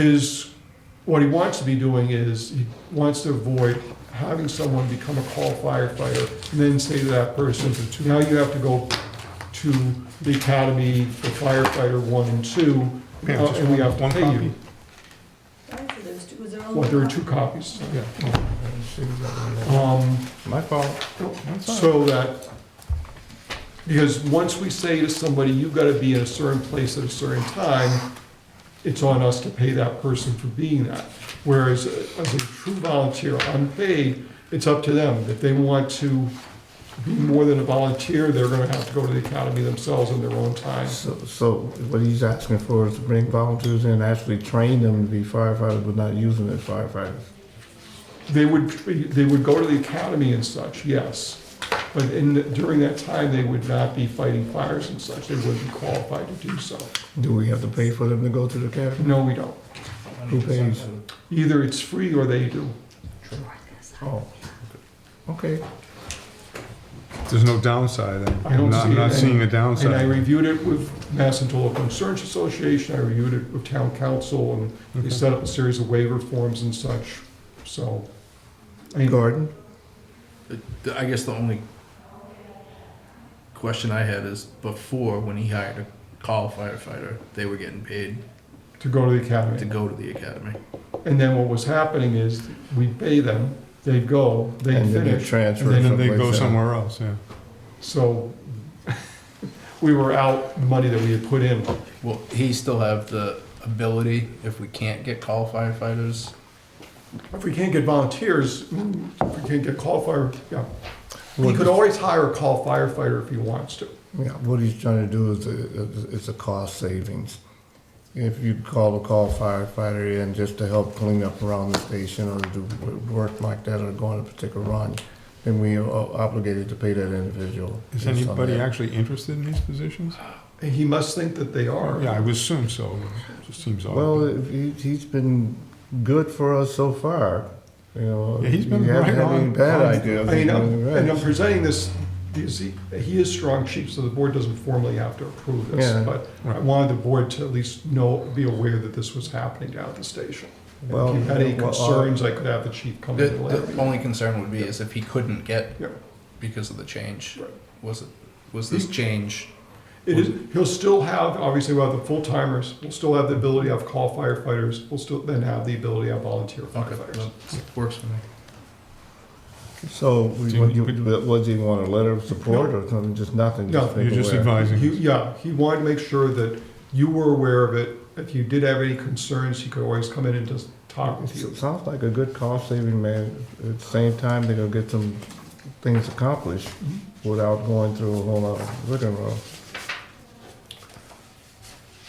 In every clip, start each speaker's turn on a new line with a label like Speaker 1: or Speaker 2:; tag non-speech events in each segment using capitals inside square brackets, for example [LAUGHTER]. Speaker 1: His, what he wants to be doing is, he wants to avoid having someone become a call firefighter and then say to that person, now you have to go to the academy for firefighter one and two, uh,
Speaker 2: Yeah, just
Speaker 1: and we
Speaker 2: one-
Speaker 1: have to
Speaker 2: one
Speaker 1: pay you.
Speaker 2: copy?
Speaker 3: Why is it there's two- was there only
Speaker 1: Well, there are
Speaker 3: one?
Speaker 1: two copies.
Speaker 2: Yeah. oh, I didn't see that one.
Speaker 1: Um,
Speaker 2: My fault. That's all right.
Speaker 1: So that, because once we say to somebody, you've got to be in a certain place at a certain time, it's on us to pay that person for being that. Whereas uh, as a true volunteer, unpaid, it's up to them. If they want to be more than a volunteer, they're going to have to go to the academy themselves in their own time.
Speaker 2: So, so what he's asking for is to bring volunteers in, actually train them to be firefighters, but not use them as firefighters.
Speaker 1: They would, they would go to the academy and such, yes. But in, during that time, they would not be fighting fires and such. They wouldn't be qualified to do so.
Speaker 2: Do we have to pay for them to go to the academy?
Speaker 1: No, we don't.
Speaker 2: Who pays?
Speaker 1: Either it's free or they do.
Speaker 2: Oh, okay.
Speaker 4: There's no downside. I'm-
Speaker 1: I don't
Speaker 4: I'm not,
Speaker 1: see
Speaker 4: I'm not
Speaker 1: it.
Speaker 4: seeing
Speaker 1: And
Speaker 4: a
Speaker 1: I
Speaker 4: downside.
Speaker 1: reviewed it with Mass and Toledo Concerns Association, I reviewed it with town council, and they
Speaker 4: Okay.
Speaker 1: set up a series of waiver forms and such, so. I mean,
Speaker 2: Gordon?
Speaker 5: The- I guess the only question I had is before, when he hired a call firefighter, they were getting paid
Speaker 1: to go to the
Speaker 5: to
Speaker 1: academy.
Speaker 5: go to the academy.
Speaker 1: And then what was happening is, we pay them, they go, they
Speaker 2: And then they
Speaker 1: finish,
Speaker 2: transfer
Speaker 1: and
Speaker 4: And then they
Speaker 2: someplace
Speaker 4: go
Speaker 2: else.
Speaker 4: somewhere else, yeah.
Speaker 1: so. [LAUGHS] We were out the money that we had put in.
Speaker 5: Will he still have the ability, if we can't get call firefighters?
Speaker 1: If we can't get volunteers, if we can't get call fire, yeah. He
Speaker 2: Well,
Speaker 1: could always hire a call firefighter if he wants to.
Speaker 2: Yeah, what he's trying to do is, uh, it's a cost savings. If you call a call firefighter in just to help clean up around the station or do work like that or go on a particular run, then we are obligated to pay that individual.
Speaker 4: Is
Speaker 2: based on
Speaker 4: anybody
Speaker 2: that.
Speaker 4: actually interested in these positions?
Speaker 1: And He must think that they are.
Speaker 4: Yeah, I would assume so. It just seems odd.
Speaker 2: Well, if he, he's been good for us so far, you know.
Speaker 4: Yeah, he's been
Speaker 2: we haven't had
Speaker 4: right on-
Speaker 2: any Bad
Speaker 4: on-
Speaker 2: ideas.
Speaker 1: I mean,
Speaker 2: He's
Speaker 1: I'm-
Speaker 2: been
Speaker 1: and I'm
Speaker 2: right.
Speaker 1: presenting this, because he, he is strong chief, so the board doesn't formally have to approve
Speaker 2: Yeah.
Speaker 1: this. But I
Speaker 4: Right.
Speaker 1: wanted the board to at least know, be aware that this was happening down at the station. And
Speaker 2: Well,
Speaker 1: If you had any
Speaker 2: well, uh,
Speaker 1: concerns, I could have the chief come
Speaker 5: The,
Speaker 1: in
Speaker 5: the
Speaker 1: later.
Speaker 5: only concern would be is if he couldn't get
Speaker 1: Yeah.
Speaker 5: because of the change.
Speaker 1: Right.
Speaker 5: Was it, was this
Speaker 1: He-
Speaker 5: change?
Speaker 1: It is, he'll still have, obviously, we'll have the full timers, we'll still have the ability to have call firefighters, we'll still then have the ability to have volunteer
Speaker 5: Okay,
Speaker 1: firefighters.
Speaker 5: well, works for me.
Speaker 2: So, we-
Speaker 4: Do
Speaker 2: what,
Speaker 4: you-
Speaker 2: you- what, do you want a letter of support or something, just nothing?
Speaker 1: No,
Speaker 2: make
Speaker 4: You're just
Speaker 2: aware.
Speaker 1: He,
Speaker 4: advising.
Speaker 1: yeah, he wanted to make sure that you were aware of it. If you did have any concerns, he could always come in and just talk with you.
Speaker 2: It Sounds like a good cost saving, man. At the same time, they're gonna get some things accomplished without going through a whole lot of rigmarole.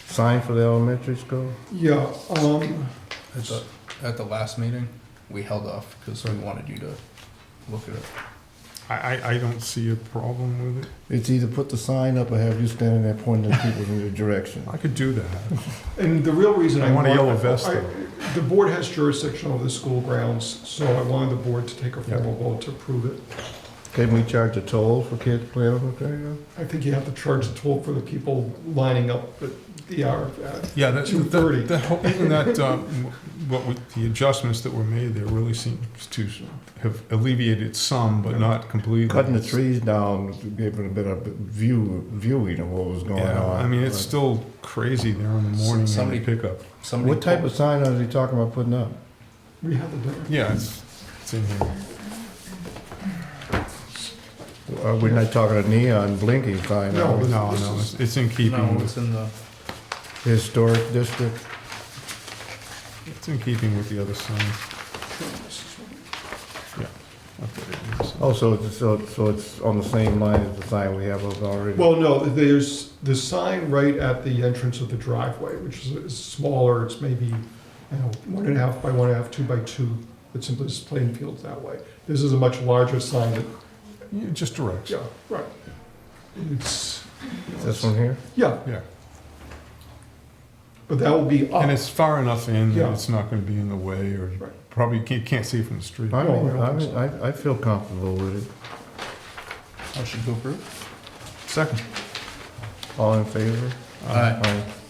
Speaker 2: Sign for the elementary school?
Speaker 1: Yeah, um,
Speaker 5: At the, at the last meeting, we held off because we wanted you to look at it.
Speaker 4: I, I, I don't see a problem with it.
Speaker 2: It's either put the sign up or have you standing there pointing at people in your direction.
Speaker 4: I could do that.
Speaker 1: and the real reason I
Speaker 4: I want a
Speaker 1: wanted-
Speaker 4: yellow vest
Speaker 1: I-
Speaker 4: though.
Speaker 1: The board has jurisdiction over the school grounds, so I wanted the board to take a formal vote to approve it.
Speaker 2: Can we charge a toll for kids playing on the playground?
Speaker 1: I think you have to charge the toll for the people lining up at the hour. uh,
Speaker 4: Yeah, that,
Speaker 1: Two thirty.
Speaker 4: that, that, whole- even that, um, what, we- the adjustments that were made there really seems to have alleviated some, but not completely.
Speaker 2: Cutting the trees down, gave it a better view, viewing of what was going
Speaker 4: Yeah,
Speaker 2: on.
Speaker 4: I mean, it's still crazy there in the
Speaker 5: S-
Speaker 4: morning in the
Speaker 5: somebody-
Speaker 4: pickup.
Speaker 5: Somebody
Speaker 2: What type
Speaker 5: pulled-
Speaker 2: of sign are they talking about putting up?
Speaker 1: We have the date.
Speaker 4: Yeah, it's, it's in here.
Speaker 2: Are we not talking a neon blinking sign?
Speaker 1: No,
Speaker 2: are we?
Speaker 4: No, no, it's- it's in keeping
Speaker 5: No,
Speaker 4: with
Speaker 5: it's in the.
Speaker 2: Historic district?
Speaker 4: It's in keeping with the other signs. Yeah. up there, so.
Speaker 2: Oh, so it's, so it's- so it's on the same line as the sign we have up already?
Speaker 1: Well, no, there's the sign right at the entrance of the driveway, which is- is smaller, it's maybe, you know, one and a half by one and a half, two by two, that simply is playing fields that way. This is a much larger sign that,
Speaker 4: Yeah, Just directs,
Speaker 1: yeah, right. It's,
Speaker 2: This one here?
Speaker 1: yeah,
Speaker 4: yeah.
Speaker 1: but that will be up.
Speaker 4: And it's far enough in
Speaker 1: Yeah.
Speaker 4: that it's not gonna be in the way or
Speaker 1: Right.
Speaker 4: probably can't, can't see it from the street.
Speaker 1: No, I
Speaker 2: I mean,
Speaker 1: don't
Speaker 2: I
Speaker 1: think
Speaker 2: mean, I, I feel comfortable with it.
Speaker 5: Motion to approve?
Speaker 4: Second.
Speaker 2: All in favor?
Speaker 5: Aye.
Speaker 2: Aye.